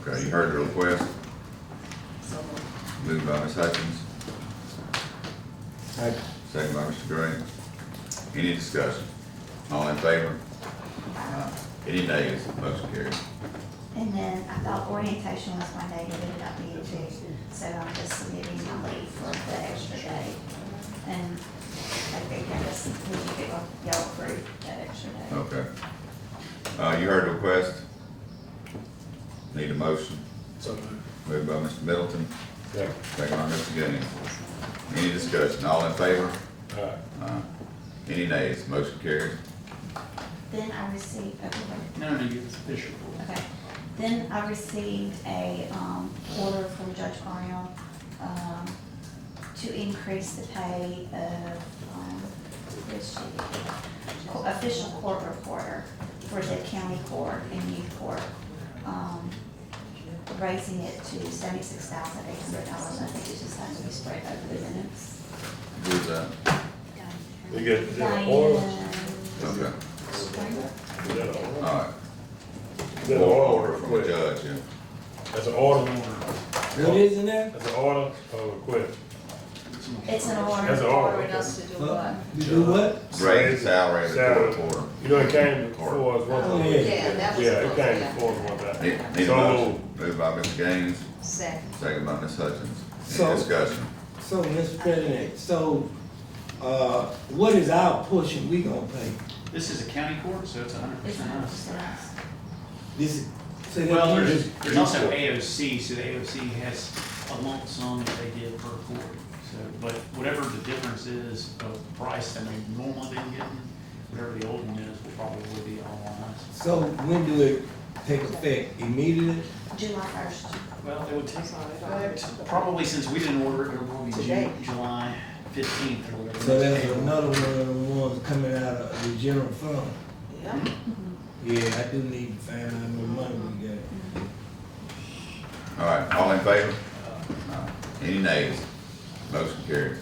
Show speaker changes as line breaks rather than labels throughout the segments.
Okay, you heard the request,
So moved.
moved by Ms. Hutchins,
Second.
second by Mr. Green. Any discussion? All in favor? Uh, Any nays? Motion carries.
And then I thought orientation was one day, but it ended up being two, so I'm just submitting my leave for the extra day. And I think I just need to get y'all approved that extra day.
Okay. Uh, you heard the request. Need a motion,
So moved.
moved by Mr. Middleton,
Second.
second by Mr. Gaines. Any discussion? All in favor?
Aye.
Uh, Any nays? Motion carries.
Then I received, okay, wait.
No, no, you, Bishop.
Okay, then I received a, um, order from Judge Arnold, um, to increase the pay of, um, where's she? Co- official court reporter for the county court and youth court. Um, raising it to seventy-six thousand eight hundred dollars, I think it just has to be spread over the minutes.
Who's that?
They got, is that an oil? Is
Diane
Okay,
Springer?
that an
all
oil?
right.
Is that an oil
Order from the
request?
judge, yeah.
That's an order,
What is in there?
that's an order or request.
It's an order.
That's an order.
Ordering us to do what?
You do
Raise
what?
the salary of
Salary.
the court reporter.
You know, it came before us one
Oh,
time.
yeah.
Yeah, that was.
Yeah, it came
yeah.
before us one time.
Need need a
So
motion, moved by Mr. Gaines,
Second.
second by Ms. Hutchins.
So-
Any discussion?
So, Mr. President, so, uh, what is our portion we gonna pay?
This is a county court, so it's a hundred
It's
percent
not
us.
just us.
This is. say that
Well,
again.
there's, there's also AOC, so the AOC has a lump sum that they give per court. So, but whatever the difference is of price that they've normally been getting, whatever the old one is, will probably be all on us.
So when do it take effect? Immediately?
July first.
Well, it would take,
That's all they don't do.
probably since we didn't order it, it'll probably be
Today.
June, July fifteenth or whatever.
So that's another one of the ones coming out of the general fund.
Yeah.
Yeah, I do need to find out what money we got.
All right, all in favor? Uh, Any nays? Motion carries.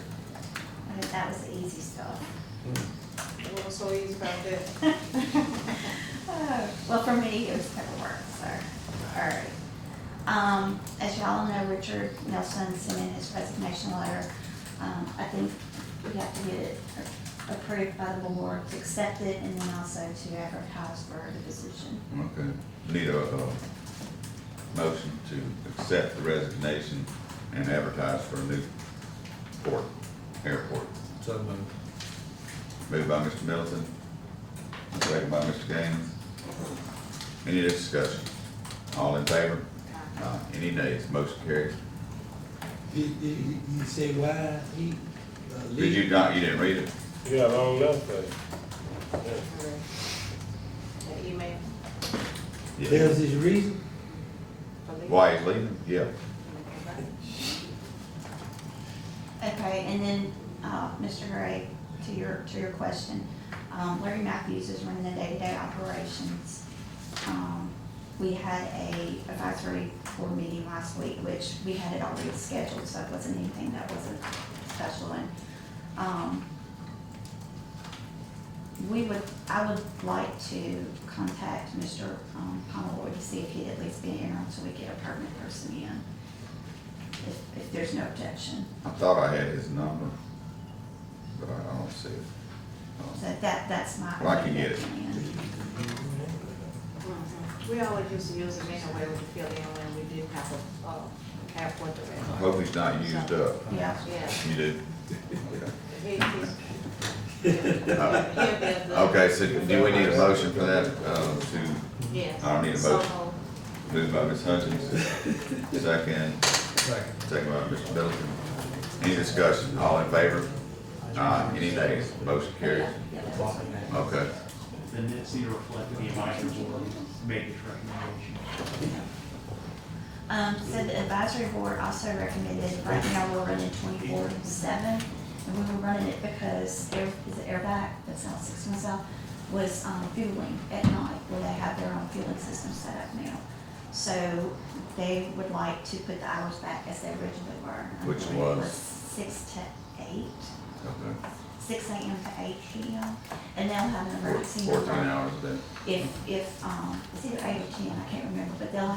I think that was the easy stuff.
What was so easy about that?
Well, for me, it was paperwork, so, all right. Um, as y'all know, Richard Nelson sent in his resignation letter. Um, I think we have to get it approved by the board, to accept it, and then also to advertise for the position.
Okay, need a, uh motion to accept the resignation and advertise for a new port, airport.
So moved.
Moved by Mr. Middleton, second by Mr. Gaines. Any discussion? All in favor? Uh, Any nays? Motion carries.
Did, did, you you say why he? uh,
Did you
leave?
not, you didn't read it?
You got a long left there. Yeah.
That email.
There's his reason?
police.
Why he's leaving? Yeah.
Okay, and then, uh, Mr. Gray, to your, to your question, um, Larry Matthews is running the day-to-day operations. Um, we had a advisory board meeting last week, which we had it already scheduled, so it wasn't anything that wasn't special and, um, we would, I would like to contact Mr. um, Pomeroy to see if he'd at least be in here until we get a permanent person in, if, if there's no objection.
I thought I had his number, but I don't see it.
So that, that's my.
Well, I can get it.
Mhm. We always used to use them anyway, we fill in when we didn't have a, uh, have what
I
the.
hope he's not used up.
Yeah,
Yeah.
You do?
he- he's- He'll be a good-
Okay, so do we need a motion for that, uh, to
Yes.
I don't need a
So
motion.
moved.
Moved by Ms. Hutchins, second, second by Mr. Middleton. Any discussion, all in favor? Uh, any nays, motion carries. Okay,
The nets need to reflect the advisory board made its recommendation.
um, so the advisory board also recommended, right now we're running twenty-four seven, and we were running it because air, is it airback, that's not six months out, was, um, fueling at night, where they have their own fueling system set up now. So they would like to put the hours back as they originally were. I
Which
believe it
was?
Six to eight,
okay.
six AM to eight PM, and they'll have an
Four-
emergency.
Fourteen
number.
hours a day.
if, if, um, it's either eight or ten, I can't remember, but they'll